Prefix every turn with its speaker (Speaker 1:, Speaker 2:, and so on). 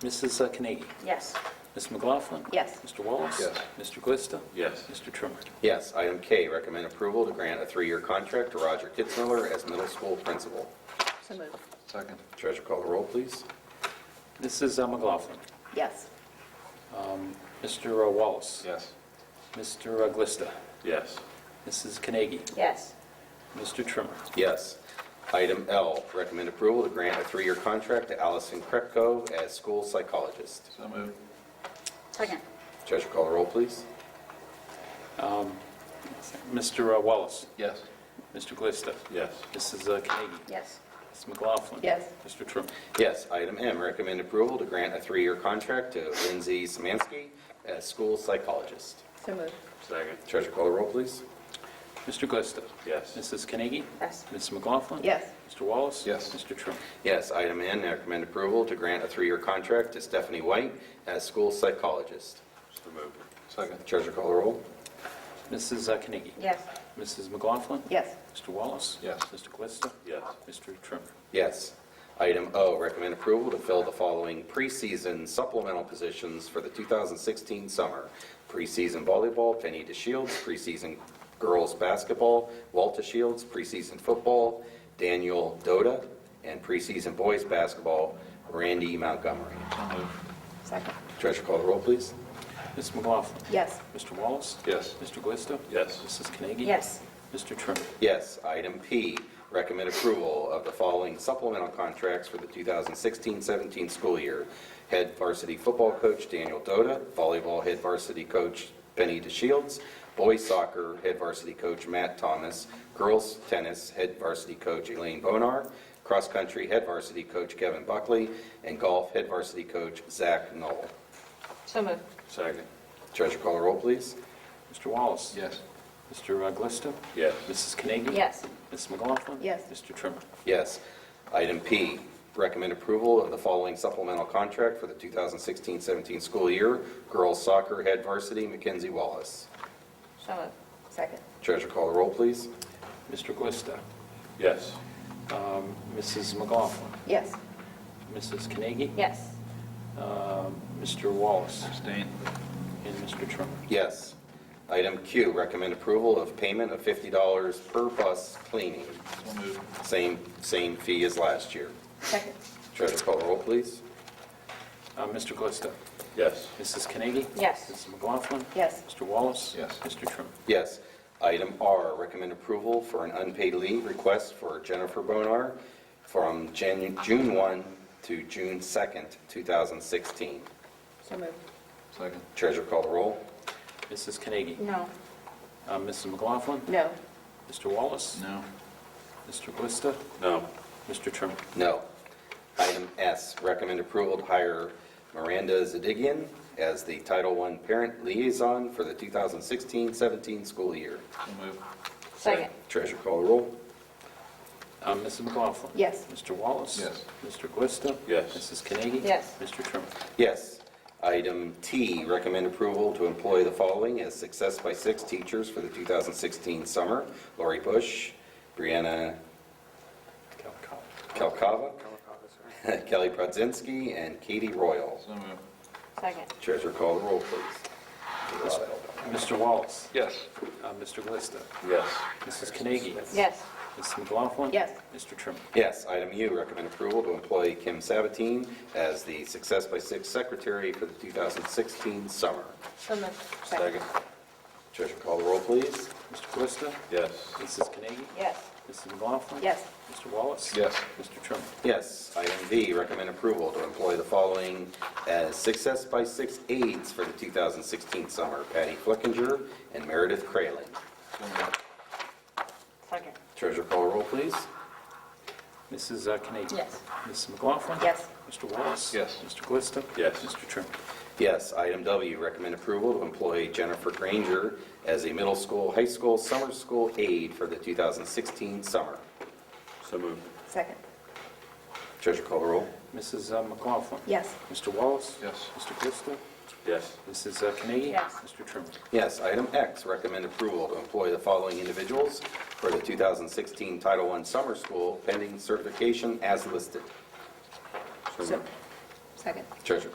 Speaker 1: Mrs. uh, Carnegie?
Speaker 2: Yes.
Speaker 1: Ms. McLaughlin?
Speaker 2: Yes.
Speaker 1: Mr. Wallace?
Speaker 3: Yes.
Speaker 1: Mr. Glista?
Speaker 4: Yes.
Speaker 1: Mr. Trimmer?
Speaker 3: Yes. Item K, recommend approval to grant a three-year contract to Roger Kitzmiller as middle school principal.
Speaker 2: So moved.
Speaker 4: Second.
Speaker 3: Treasurer call the roll, please.
Speaker 1: Mrs. uh, McLaughlin?
Speaker 2: Yes.
Speaker 1: Mr. Wallace?
Speaker 4: Yes.
Speaker 1: Mr. Glista?
Speaker 4: Yes.
Speaker 1: Mrs. Carnegie?
Speaker 2: Yes.
Speaker 1: Mr. Trimmer?
Speaker 3: Yes. Item L, recommend approval to grant a three-year contract to Allison Krepko as school psychologist.
Speaker 4: So moved.
Speaker 2: Second.
Speaker 3: Treasurer call the roll, please.
Speaker 1: Mr. uh, Wallace?
Speaker 4: Yes.
Speaker 1: Mr. Glista?
Speaker 4: Yes.
Speaker 1: Mrs. Carnegie?
Speaker 2: Yes.
Speaker 1: Ms. McLaughlin?
Speaker 2: Yes.
Speaker 1: Mr. Trimmer?
Speaker 3: Yes. Item M, recommend approval to grant a three-year contract to Lindsay Samansky as school psychologist.
Speaker 2: So moved.
Speaker 4: Second.
Speaker 3: Treasurer call the roll, please.
Speaker 1: Mr. Glista?
Speaker 4: Yes.
Speaker 1: Mrs. Carnegie?
Speaker 2: Yes.
Speaker 1: Ms. McLaughlin?
Speaker 2: Yes.
Speaker 1: Mr. Wallace?
Speaker 4: Yes.
Speaker 1: Mr. Trimmer?
Speaker 3: Yes. Item N, recommend approval to grant a three-year contract to Stephanie White as school psychologist.
Speaker 4: So moved. Second.
Speaker 3: Treasurer call the roll.
Speaker 1: Mrs. uh, Carnegie?
Speaker 2: Yes.
Speaker 1: Mrs. McLaughlin?
Speaker 2: Yes.
Speaker 1: Mr. Wallace?
Speaker 4: Yes.
Speaker 1: Mr. Glista?
Speaker 4: Yes.
Speaker 1: Mr. Trimmer?
Speaker 3: Yes. Item O, recommend approval to fill the following preseason supplemental positions for the 2016 summer. Preseason volleyball, Penny DeShields, preseason girls basketball, Walter Shields, preseason football, Daniel Dota, and preseason boys basketball, Randy Montgomery.
Speaker 4: So moved.
Speaker 2: Second.
Speaker 3: Treasurer call the roll, please.
Speaker 1: Ms. McLaughlin?
Speaker 2: Yes.
Speaker 1: Mr. Wallace?
Speaker 4: Yes.
Speaker 1: Mr. Glista?
Speaker 4: Yes.
Speaker 1: Mrs. Carnegie?
Speaker 2: Yes.
Speaker 1: Mr. Trimmer?
Speaker 3: Yes. Item P, recommend approval of the following supplemental contracts for the 2016-17 school year. Head varsity football coach Daniel Dota, volleyball head varsity coach Benny DeShields, boys soccer head varsity coach Matt Thomas, girls tennis head varsity coach Elaine Bonar, cross-country head varsity coach Kevin Buckley, and golf head varsity coach Zach Knoll.
Speaker 2: So moved.
Speaker 4: Second.
Speaker 3: Treasurer call the roll, please.
Speaker 1: Mr. Wallace?
Speaker 4: Yes.
Speaker 1: Mr. Glista?
Speaker 4: Yes.
Speaker 1: Mrs. Carnegie?
Speaker 2: Yes.
Speaker 1: Ms. McLaughlin?
Speaker 2: Yes.
Speaker 1: Mr. Trimmer?
Speaker 3: Yes. Item P, recommend approval of the following supplemental contract for the 2016-17 school year, girls soccer head varsity, Mackenzie Wallace.
Speaker 2: So moved. Second.
Speaker 3: Treasurer call the roll, please.
Speaker 1: Mr. Glista?
Speaker 4: Yes.
Speaker 1: Um, Mrs. McLaughlin?
Speaker 2: Yes.
Speaker 1: Mrs. Carnegie?
Speaker 2: Yes.
Speaker 1: Um, Mr. Wallace?
Speaker 4: Abstain.
Speaker 1: And Mr. Trimmer?
Speaker 3: Yes. Item Q, recommend approval of payment of $50 per bus cleaning,
Speaker 4: So moved.
Speaker 3: same, same fee as last year.
Speaker 2: Second.
Speaker 3: Treasurer call the roll, please.
Speaker 1: Uh, Mr. Glista?
Speaker 4: Yes.
Speaker 1: Mrs. Carnegie?
Speaker 2: Yes.
Speaker 1: Mrs. McLaughlin?
Speaker 2: Yes.
Speaker 1: Mr. Wallace?
Speaker 4: Yes.
Speaker 1: Mr. Trimmer?
Speaker 3: Yes. Item R, recommend approval for an unpaid leave request for Jennifer Bonar from Jan- June 1 to June 2nd, 2016.
Speaker 2: So moved.
Speaker 4: Second.
Speaker 3: Treasurer call the roll.
Speaker 1: Mrs. Carnegie?
Speaker 2: No.
Speaker 1: Uh, Mrs. McLaughlin?
Speaker 2: No.
Speaker 1: Mr. Wallace?
Speaker 4: No.
Speaker 1: Mr. Glista?
Speaker 4: No.
Speaker 1: Mr. Trimmer?
Speaker 3: No. Item S, recommend approval to hire Miranda Zadigian as the Title I Parent Liaison for the 2016-17 school year.
Speaker 4: So moved.
Speaker 2: Second.
Speaker 3: Treasurer call the roll.
Speaker 1: Uh, Mrs. McLaughlin?
Speaker 2: Yes.
Speaker 1: Mr. Wallace?
Speaker 4: Yes.
Speaker 1: Mr. Glista?
Speaker 4: Yes.
Speaker 1: Mrs. Carnegie?
Speaker 2: Yes.
Speaker 1: Mr. Trimmer?
Speaker 3: Yes. Item T, recommend approval to employ the following as Success by Six teachers for the 2016 summer. Lori Bush, Brianna
Speaker 1: Calcott.
Speaker 3: Kalkava, Kelly Prodzinski, and Katie Royal.
Speaker 4: So moved.
Speaker 2: Second.
Speaker 3: Treasurer call the roll, please.
Speaker 1: Mr. Wallace?
Speaker 4: Yes.
Speaker 1: Uh, Mr. Glista?
Speaker 4: Yes.
Speaker 1: Mrs. Carnegie?
Speaker 2: Yes.
Speaker 1: Mrs. McLaughlin?
Speaker 2: Yes.
Speaker 1: Mr. Trimmer?
Speaker 3: Yes. Item U, recommend approval to employ Kim Sabatine as the Success by Six secretary for the 2016 summer.
Speaker 2: So moved.
Speaker 4: Second.
Speaker 3: Treasurer call the roll, please.
Speaker 1: Mr. Glista?
Speaker 4: Yes.
Speaker 1: Mrs. Carnegie?
Speaker 2: Yes.
Speaker 1: Mrs. McLaughlin?
Speaker 2: Yes.
Speaker 1: Mr. Wallace?
Speaker 4: Yes.
Speaker 1: Mr. Trimmer?
Speaker 3: Yes. Item V, recommend approval to employ the following as Success by Six aides for the 2016 summer, Patty Flickinger and Meredith Crayling.
Speaker 4: So moved.
Speaker 2: Second.
Speaker 3: Treasurer call roll, please.
Speaker 1: Mrs. uh, Carnegie?
Speaker 2: Yes.
Speaker 1: Mrs. McLaughlin?
Speaker 2: Yes.
Speaker 1: Mr. Wallace?
Speaker 4: Yes.
Speaker 1: Mr. Glista?
Speaker 4: Yes.
Speaker 1: Mr. Trimmer?
Speaker 3: Yes. Item W, recommend approval to employ Jennifer Granger as a middle school, high school, summer school aide for the 2016 summer.
Speaker 4: So moved.
Speaker 2: Second.
Speaker 3: Treasurer call roll.
Speaker 1: Mrs. uh, McLaughlin?
Speaker 2: Yes.
Speaker 1: Mr. Wallace?
Speaker 4: Yes.
Speaker 1: Mr. Glista?
Speaker 4: Yes.
Speaker 1: Mrs. uh, Carnegie?
Speaker 2: Yes.
Speaker 1: Mr. Trimmer?
Speaker 3: Yes. Item X, recommend approval to employ the following individuals for the 2016 Title I summer school pending certification as listed.
Speaker 4: So moved.
Speaker 2: Second.
Speaker 3: Treasurer